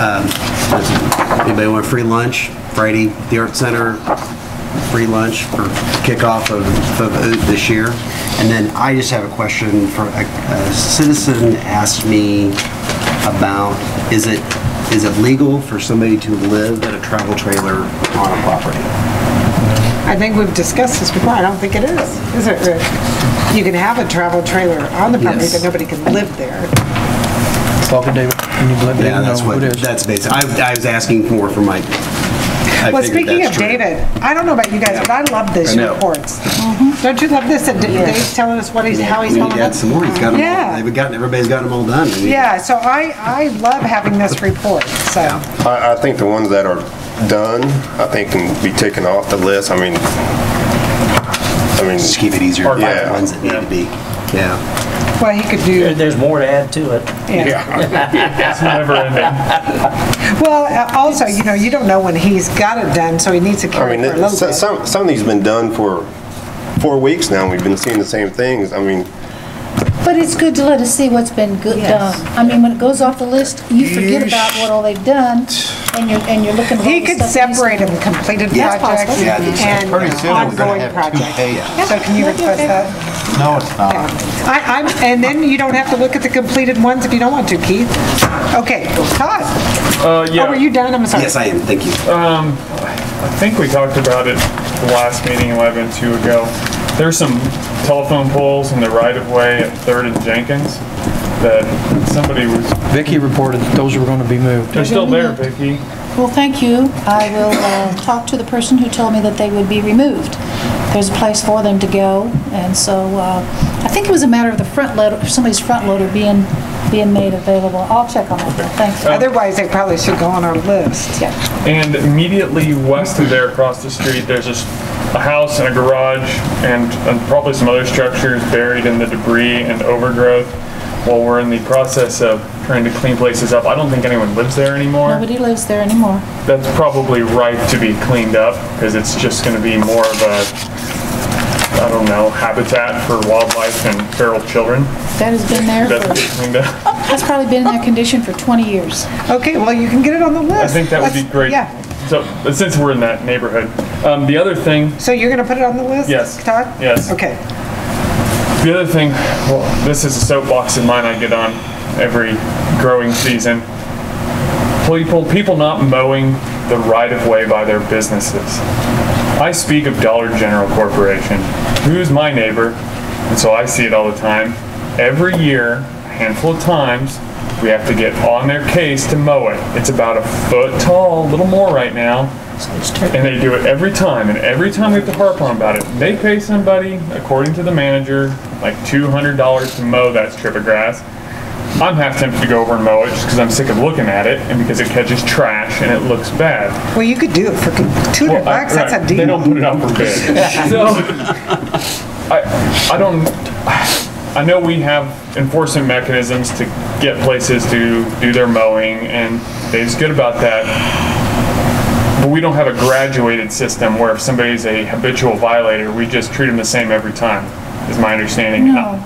Um, does Anybody want free lunch? Friday, the Art Center, free lunch for kickoff of of uh, this year. And then I just have a question for, a a citizen asked me about, is it, is it legal for somebody to live in a travel trailer on a property? I think we've discussed this before, I don't think it is, is it, Rick? You can have a travel trailer on the property, Yes. but nobody can live there. Talk to David, and you let David Yeah, know that's who what, it is. that's basically, I I was asking more for my, I Well, figured speaking of that's true. David, I don't know about you guys, but I love I these know. Mm-hmm. reports. Don't you love this, that D- Dave's telling us what he's, how he's We need telling to add us? some more, he's got them all, Yeah. they've gotten, everybody's got them all done. We need to- Yeah, so I, I love having this report, so, I, I think the ones that are done, I think can be taken off the list. I mean, I mean, Just keep it easier, to find Yeah. the ones that need to be, yeah. well, he could do, There- There's more to add to it. yeah. It's never ending. Well, uh, also, you know, you don't know when he's got it done, so he needs to I carry mean, it for a it- so- little bit. some, some of these been done for four weeks now. We've been seeing the same things. I mean, But it's good to let us see what's been good done. I mean, when it goes off the list, you forget about what all they've done, and you're, and you're looking for all He the could stuff he's separate done. them, completed Yeah, it's projects possible. Yeah, and uh, ongoing projects. So can you That'd be request okay. that? No, it's Yeah. not. I, I'm, and then you don't have to look at the completed ones if you don't want to, Keith. Okay, Todd? Uh, Oh, were yeah, you done? I'm sorry. Yes, I am, thank you. I think we talked about it the last meeting, might have been two ago. There's some telephone poles in the right of way at Third and Jenkins that somebody was, Vicky reported that those were going to be moved. they're still there, Vicky. Well, thank you. I will uh, talk to the person who told me that they would be removed. There's a place for them to go, and so uh, I think it was a matter of the front loader, somebody's front loader being, being made available. I'll check on that. Thanks. Otherwise, they probably should go on our list. And immediately west of there, across the street, there's just a house and a garage and, and probably some other structures buried in the debris and overgrowth. While we're in the process of trying to clean places up, I don't think anyone lives there anymore. Nobody lives there anymore. that's probably ripe to be cleaned up because it's just going to be more of a, I don't know, habitat for wildlife and feral children. That has been there That's for, get cleaned up. that's probably been in that condition for 20 years. Okay, well, you can get it on the list. I think that would be Let's- great. Yeah. So, but since we're in that neighborhood, um, the other thing So you're going to put it on the list? Yes. Todd? Yes. Okay. The other thing, well, this is a soapbox of mine I get on every growing season. People, people not mowing the right of way by their businesses. I speak of Dollar General Corporation, who's my neighbor, and so I see it all the time. Every year, a handful of times, we have to get on their case to mow it. It's about a foot tall, a little more right now. And they do it every time, and every time we have to harp on about it. They pay somebody, according to the manager, like $200 to mow that strip of grass. I'm half tempted to go over and mow it just because I'm sick of looking at it and because it catches trash and it looks bad. Well, you could do it for 200 Well, I- bucks, that's a right, They don't deal. put it out for bid. So, I, I don't, I know we have enforcement mechanisms to get places to do their mowing, and Dave's good about that. But we don't have a graduated system where if somebody's a habitual violator, we just treat them the same every time, is my understanding. No.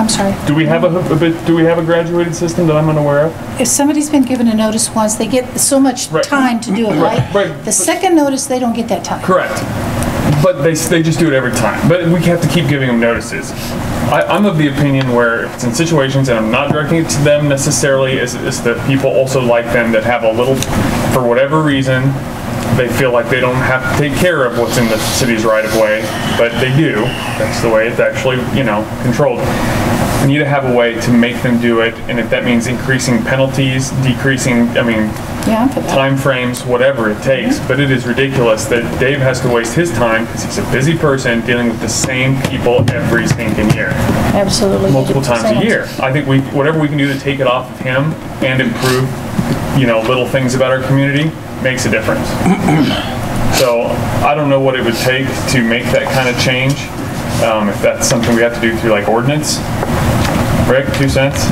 I'm sorry. Do we have a, hab- habit- do we have a graduated system that I'm unaware of? If somebody's been given a notice once, they get so much Right. time to do it, Right, right? right. The second notice, they don't get that time. Correct. But they, they just do it every time. But we have to keep giving them notices. I, I'm of the opinion where if it's in situations, and I'm not directing it to them necessarily, is, is that people also like them that have a little, for whatever reason, they feel like they don't have to take care of what's in the city's right of way, but they do. That's the way it's actually, you know, controlled. We need to have a way to make them do it, and if that means increasing penalties, decreasing, I mean, Yeah, I'm for that. timeframes, whatever it takes, but it is ridiculous that Dave has to waste his time because he's a busy person dealing with the same people every stinking year, absolutely. multiple times Someone's- a year. I think we, whatever we can do to take it off of him and improve, you know, little things about our community makes a difference. So I don't know what it would take to make that kind of change, um, if that's something we have to do through like ordinance. Rick, two cents?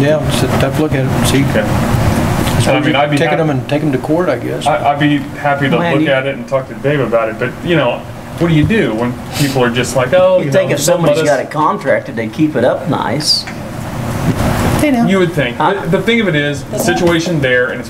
Yeah, sit, have a look at it, see. Okay. And I mean, I'd be Taking happy- them and take them to court, I guess. I- I'd be happy to Man, look you- at it and talk to Dave about it, but, you know, what do you do when people are just like, oh, You you know, think if don't let somebody's us- got it contracted, they keep it up nice. You know. You would think. The the thing of it is, the situation there, and it's